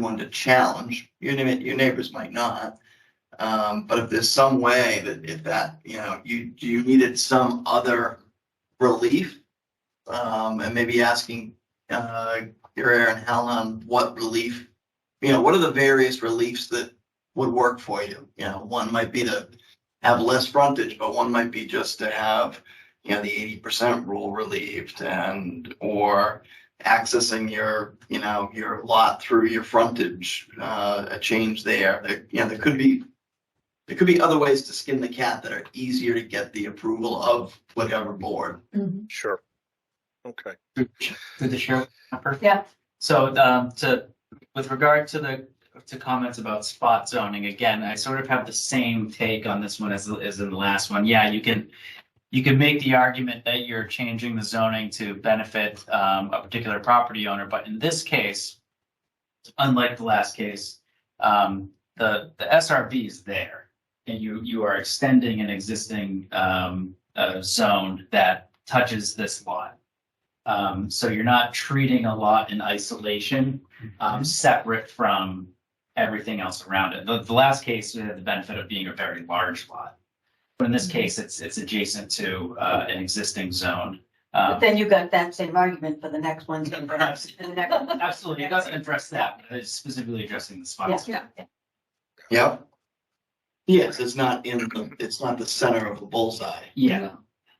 one to challenge. Your neigh- your neighbors might not. Um, but if there's some way that if that, you know, you you needed some other relief, um, and maybe asking uh Gary and Helen what relief, you know, what are the various reliefs that would work for you? You know, one might be to have less frontage, but one might be just to have, you know, the eighty percent rule relieved and or accessing your, you know, your lot through your frontage, uh, a change there. There, you know, there could be, there could be other ways to skin the cat that are easier to get the approval of whatever board. Sure. Okay. Through the chair. Pepper. Yeah. So um, to, with regard to the, to comments about spot zoning, again, I sort of have the same take on this one as, as in the last one. Yeah, you can, you can make the argument that you're changing the zoning to benefit um, a particular property owner, but in this case, unlike the last case, um, the, the SRV is there. And you, you are extending an existing um, uh, zone that touches this lot. Um, so you're not treating a lot in isolation, um, separate from everything else around it. The, the last case, we had the benefit of being a very large lot. But in this case, it's, it's adjacent to, uh, an existing zone. But Um, then you got that same argument for the next one's and perhaps the next. absolutely, it doesn't address that, but it's specifically addressing the spots. Yeah. Yep. Yes, it's not in, the it's not the center of the bullseye. Yeah,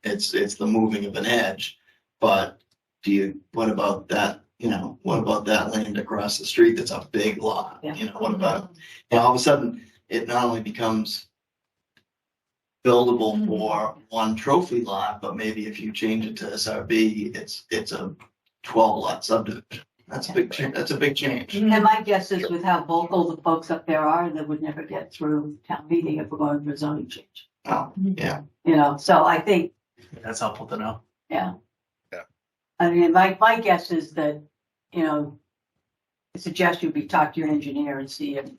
It's, it's the moving of an edge. But do you, what about that, you know, what about that land across the street that's a big lot? Yeah. You know, what about And all of a sudden, it not only becomes buildable Mhm. for one trophy lot, but maybe if you change it to SRB, it's, it's a twelve lot subdivision. That's a big, cha- that's a big change. And my guess is with how vocal the folks up there are, they would never get through town meeting if we're going for zoning change. Oh, yeah. You know, so I think, that's helpful to know. yeah. Yeah. I mean, my, my guess is that, you know, I suggest you be talk to your engineer and see if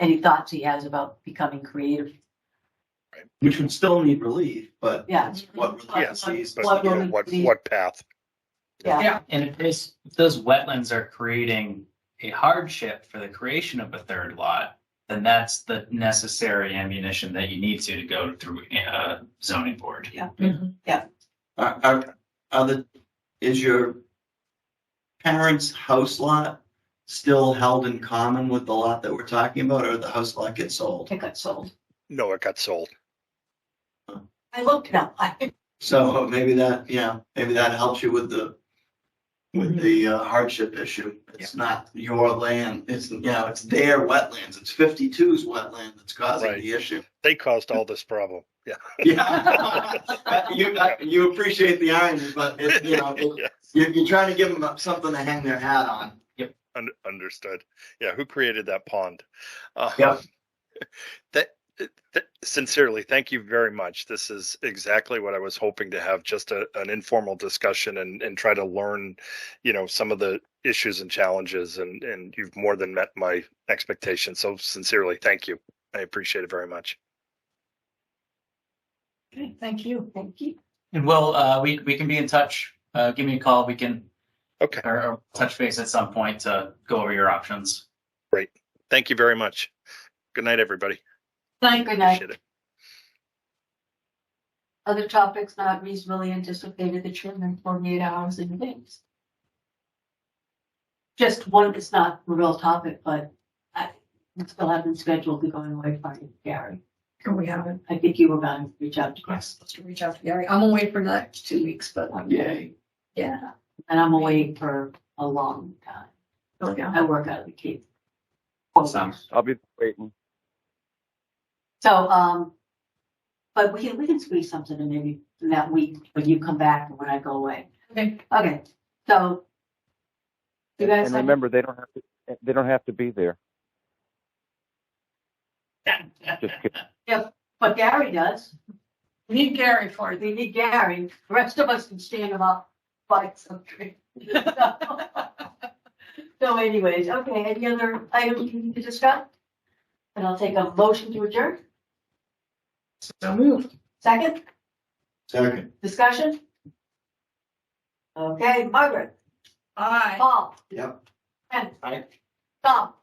any thoughts he has about becoming creative. Which would still need relief, but Yeah. it's what relief Yes, sees. But What you will know, we what, see? what path? Yeah. And if this, if those wetlands are creating a hardship for the creation of a third lot, then that's the necessary ammunition that you need to, to go through uh zoning board. Yeah. Are, are, are the, is your parents' house lot still held in common with the lot that we're talking about, or the house lot gets sold? It got sold. No, it got sold. I looked now. I, So maybe that, yeah, maybe that helps you with the, Mm-hmm. with the uh, hardship issue. It's not your land, it's, you know, it's their wetlands, it's 52's wetland that's causing Right. the issue. They caused all this problem. Yeah. Yeah. You, you appreciate the irony, but it, you know, it- Yeah. you're, you're trying to give them something to hang their hat on. Un- understood. Yeah. Who created that pond? Uh, Yep. That, uh, that- sincerely, thank you very much. This is exactly what I was hoping to have just a, an informal discussion and, and try to learn, you know, some of the issues and challenges. And, and you've more than met my expectations. So sincerely, thank you. I appreciate it very much. thank you. Thank you. And well, uh, we, we can be in touch, uh, give me a call, we can. Okay. Or, or touch base at some point to go over your options. Thank you very much. Good night, everybody. Thank Good night. Appreciate it. Other topics not reasonably anticipated that should in forty-eight hours in advance. Just one that's not a real topic, but I, we still haven't scheduled the going away party, Gary. Oh, we haven't. I think you were going to reach out to I'm Chris. supposed to reach out to Gary. I'm away for the next two weeks, but um, Yay. yeah. And I'm away for a long time. Oh, yeah. I work out of the Cape. Sounds- I'll be waiting. So, um, but we can, we can squeeze something in maybe in that week when you come back and when I go away. Okay. Okay, so. You guys And have- remember, they don't have to, they don't have to be there. Just kidding. But Gary does. We need Gary for it. We need Gary. The rest of us can stand him up, fight something. So anyways, okay, any other items we need to discuss? And I'll take a motion to adjourn. So moved. Second, Second. discussion? Okay, Margaret, Bye. Paul. Yep. Ken. Aye. Tom.